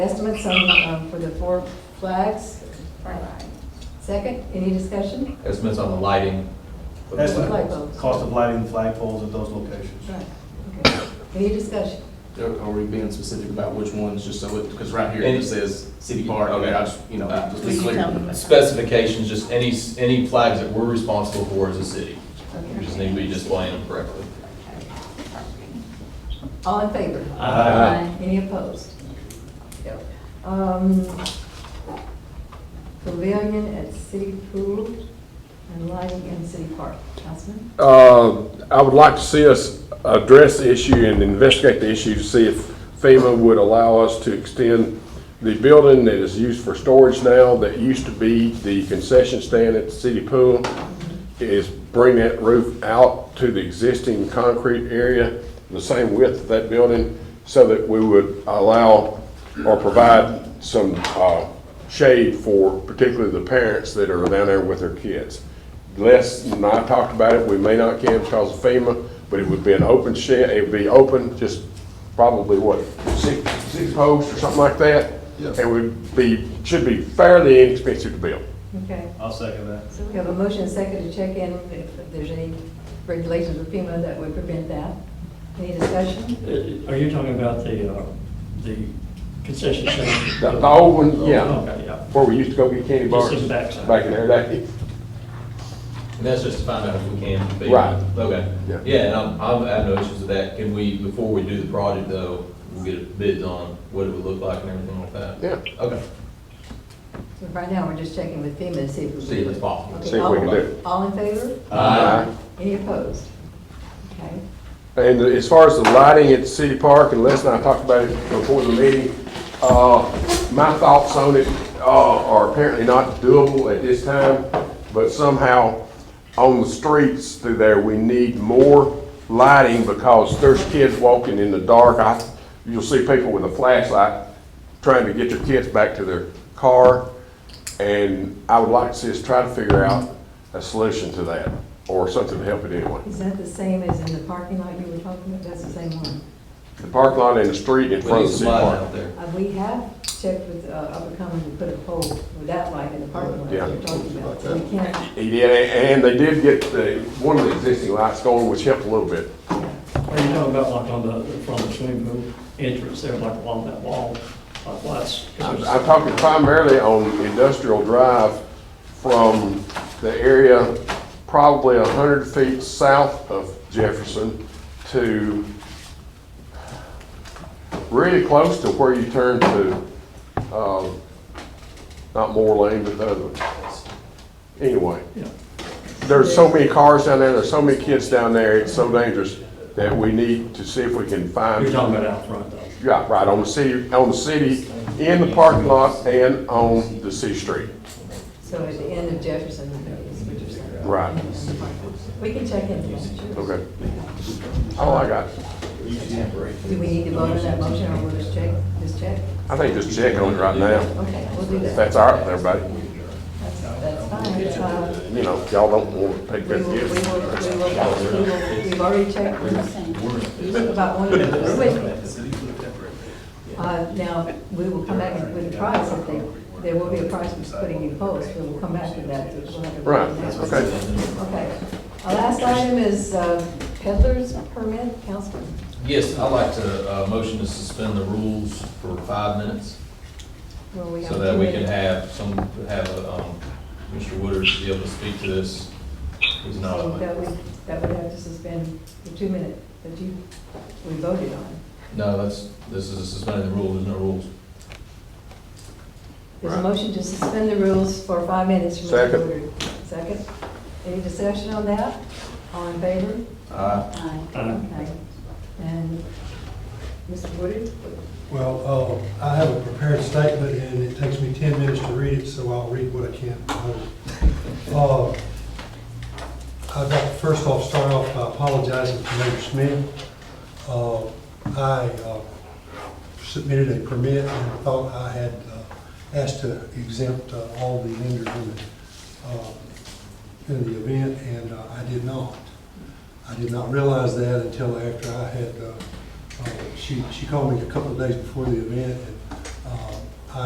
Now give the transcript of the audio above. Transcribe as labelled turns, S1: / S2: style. S1: Estimates on, um, for the four flags. Second, any discussion?
S2: Estimates on the lighting. for the
S1: Estimate.
S2: flag.
S1: Flagpoles.
S3: Cost of lighting the flagpoles at those locations.
S1: Right. Okay. Any discussion?
S4: Are are we being specific about which ones, just so it, because right here it
S2: And-
S4: says city park,
S2: Okay.
S4: and I just, you know, just be clear.
S2: Specifications, just any, any flags that we're responsible for as a city. We just need to be displaying them correctly.
S1: All in favor?
S3: Aye.
S1: Any opposed? No. Um, Pavilion at City Pool and lighting in City Park. Councilman?
S5: Uh, I would like to see us address the issue and investigate the issue to see if FEMA would allow us to extend the building that is used for storage now, that used to be the concession stand at the city pool, is bring that roof out to the existing concrete area, the same width of that building, so that we would allow or provide some uh, shade for particularly the parents that are down there with their kids. Les and I talked about it, we may not can because of FEMA, but it would be an open shed, it would be open, just probably what, six, six posts or something like that?
S6: Yeah.
S5: And would be, should be fairly inexpensive to build.
S1: Okay.
S3: I'll second that.
S1: We have a motion and second to check in if there's any regulations with FEMA that would prevent that. Any discussion?
S7: Are you talking about the, uh, the concession stand?
S5: The the old one, yeah,
S7: Okay, yeah.
S5: where we used to go get candy bars.
S7: Just in the backside.
S5: Back in there, that,
S2: And that's just to find out if we can. be-
S5: Right.
S2: Okay.
S5: Yeah.
S2: Yeah, and I'm, I'm, I have no issues with that. Can we, before we do the project though, we'll get bids on what it would look like and everything like that?
S5: yeah.
S2: Okay.
S1: So Right now, we're just checking with FEMA to see if we can.
S2: See if it's possible.
S1: Okay,
S5: See if we can
S1: all-
S5: do it.
S1: All in favor?
S2: Aye.
S1: Any opposed? Okay.
S5: And as far as the lighting at the city park, and Les and I talked about it before the meeting, uh, my thoughts on it, uh, are apparently not doable at this time, but somehow on the streets through there, we need more lighting because there's kids walking in the dark. I, you'll see people with a flashlight trying to get their kids back to their car. And I would like to see us try to figure out a solution to that or something to help it anyway.
S1: Is that the same as in the parking lot you were talking about? That's the same one?
S5: The park lot and the street in
S2: We
S5: front
S2: need
S5: of the
S2: some
S5: city
S2: light
S5: park.
S2: out there.
S1: Uh, We have checked with uh, Upper Common to put a pole with that light in the parking lot
S5: Yeah.
S1: you're talking about. So We can't,
S5: He did, and they did get the, one of the existing lights going, which helped a little bit.
S7: Are you talking about like on the, from the swimming pool entrance there, like along that wall, like lights?
S5: I'm I'm talking primarily on Industrial Drive from the area probably a hundred feet south of Jefferson to really close to where you turn to, um, not Moore Lane, but the other one. Anyway.
S7: Yeah.
S5: There's so many cars down there, there's so many kids down there, it's so dangerous that we need to see if we can find.
S7: You're talking about out front though.
S5: Yeah, right, on the city, on the city, in the parking lot and on the city street.
S1: so at the end of Jefferson, is what you're saying.
S5: Right,
S1: We can check in. Do
S5: okay. All I got,
S1: we need to vote on that motion or we'll just check, just check?
S5: I think just check on it right now.
S1: Okay, we'll do
S5: If
S1: that.
S5: that's all right with everybody,
S1: That's that's fine. Uh,
S5: you know, y'all don't want to take
S1: We
S5: that
S1: will, we will, we
S5: gift.
S1: will, we will, we've already checked with, you took about one of those with me. Uh, now, we will come back with a price, I think, there will be a price for putting in post, we will come back to that. We'll have to-
S5: Right, okay.
S1: Okay. Our last item is uh, peddler's permit, Councilman.
S2: Yes, I'd like to, uh, motion to suspend the rules for five minutes.
S1: Well, we have
S2: So that we
S1: two
S2: can
S1: minutes.
S2: have some, have, um, Mr. Woodard be able to speak to this. He's not,
S1: So
S2: on it.
S1: That would, that would have to suspend the two minute that you, we voted on.
S2: no, that's, this is suspending the rules, there's no rules.
S1: There's a motion to suspend the rules for five minutes from Mr.
S5: Second.
S1: Woodard. Second. Any discussion on that? All in favor?
S2: Uh,
S7: Uh,
S1: Okay. And Mr. Woodard?
S6: Well, uh, I have a prepared statement, and it takes me 10 minutes to read it, so I'll read what I can. Uh, I'd like to first off start off by apologizing to Major Smith. Uh, I uh, submitted a permit and thought I had uh, asked to exempt uh, all the vendors in the, uh, in the event, and uh, I did not. I did not realize that until after I had, uh, uh, she, she called me a couple of days before the event, and